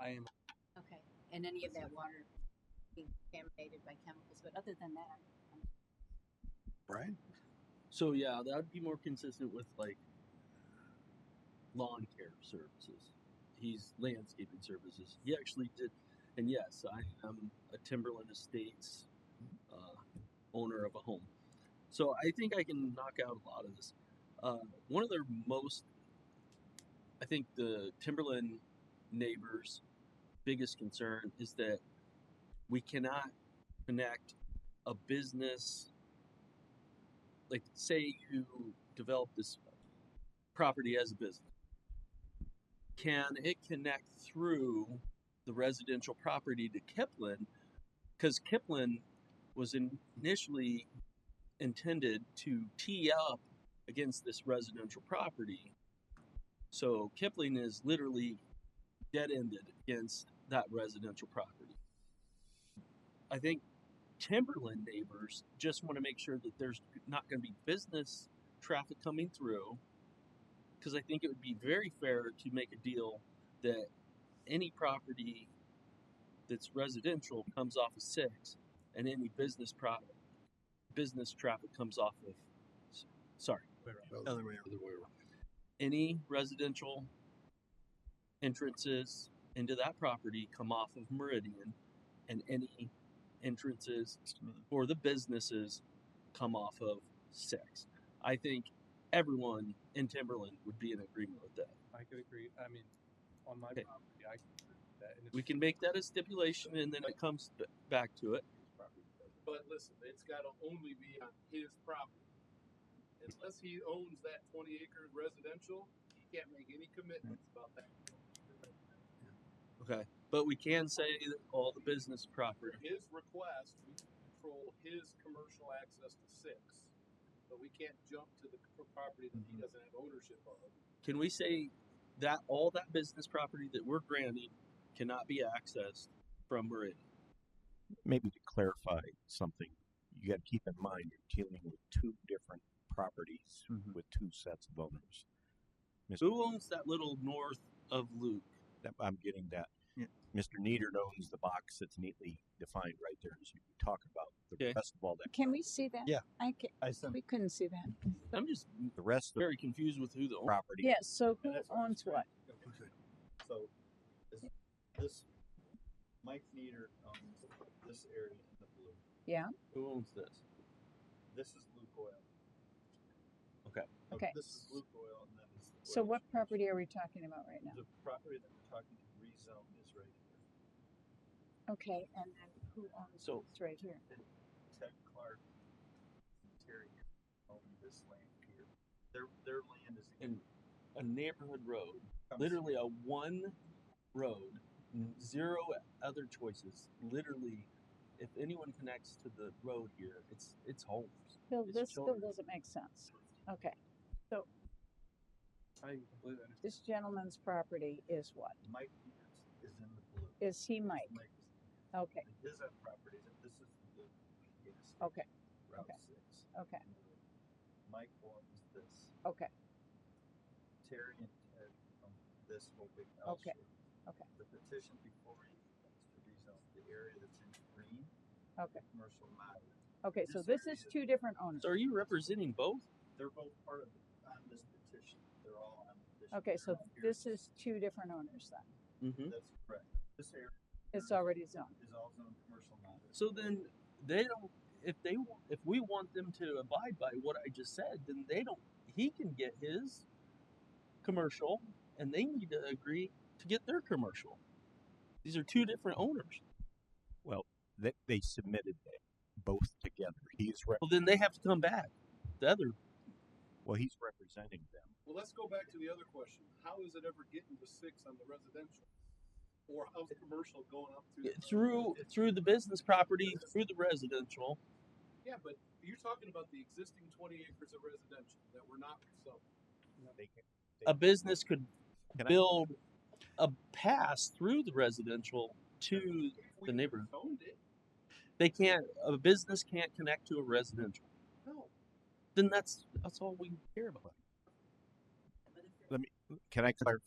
I am, Okay, and any of that water being contaminated by chemicals, but other than that, I'm Brian. So yeah, that would be more consistent with like lawn care services. He's landscaping services. He actually did, and yes, I am a Timberland Estates uh, owner of a home. So I think I can knock out a lot of this. Uh, one of their most, I think, the Timberland neighbors' biggest concern is that we cannot connect a business like say you develop this property as a business can it connect through the residential property to kipling because kipling was in- initially intended to tee up against this residential property so kipling is literally dead-ended against that residential property i think Timberland neighbors just want to make sure that there's not going to be business traffic coming through. Because I think it would be very fair to make a deal that any property that's residential comes off of six, and any business pro- business traffic comes off of. s- Sorry, way around. Well, other way around. Other way around. Any residential entrances into that property come off of Meridian, and any entrances or the businesses come off of six. I think everyone in Timberland would be in agreement with that. I could agree. I mean, on my Okay. property, I could agree with that. And it's We can make that a stipulation and then it comes b- back to it. his property. But listen, it's got to only be on his property. Unless he owns that twenty acre residential, he can't make any commitments about that. Okay. But we can say that all the business property. His request, we control his commercial access to six, but we can't jump to the pro- property that he doesn't have ownership of. Can we say that all that business property that we're granting cannot be accessed from Meridian? maybe to clarify something, you got to keep in mind you're dealing with two different properties Mhm. with two sets of owners. Mr. Who owns that little north of Luke? That- I'm getting that. Yeah. Mr. Needard owns the box that's neatly defined right there as you talk about the Okay. rest of all that. Can we see that? Yeah. I can, I sent we couldn't see that. I'm just The rest of very confused with who the the owner. property. Yes, so who And that's what I was owns what? trying to go. So, this, this, Mike Nieder um, owns this area in the blue. Who owns this? This is Luke Oil. Okay. So Okay. This is Luke Oil and that is the. So oil what change. property are we talking about right now? The property that we're talking to rezone is right here. Okay, and then who owns So- this right here? Ted Clark, Terry, own this land here. Their, their land is. And a neighborhood road comes- literally a one road, n- zero other choices. Literally, if anyone connects to the road here, it's it's homes. Bill, It's this bill children. doesn't make sense. Okay, I completely understand. this gentleman's property is what? Mike Nieder's is in the blue. Is he Mike? Mike is in the blue. Okay, And his own properties, and this is the gas station, okay, Route okay. Six. okay, and the Mike owns this, okay. Terry and Ted own this whole big house. Okay, here. okay. The petition before you is to rezone the area that's in green. Okay. Commercial moderate. Okay, so This this is area- two different owners. So, are you representing both? They're both part of, on this petition, they're all on the petition. Okay, They're so not here. this is two different owners then. Mm-hmm. That's correct. This area It's already zoned. is all zone commercial moderate. So then they don't. If they wa- if we want them to abide by what I just said, then they don't. He can get his commercial, and they need to agree to get their commercial. These are two different owners. That they submitted that both together. He's re- Well, then they have to come back. The other well, he's representing them. Well, let's go back to the other question. How is it ever getting to six on the residential? Or how's commercial going up to? through through the business property, through the residential, Yeah, but you're talking about the existing twenty acres of residential that we're not selling. They can, a business could Can I- build a pass through the residential to If we The neighborhood. Owned it, they can't a business can't connect to a residential no. then that's that's all we care about Can I clarify?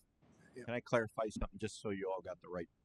Yeah. Can I clarify something just so you all got the right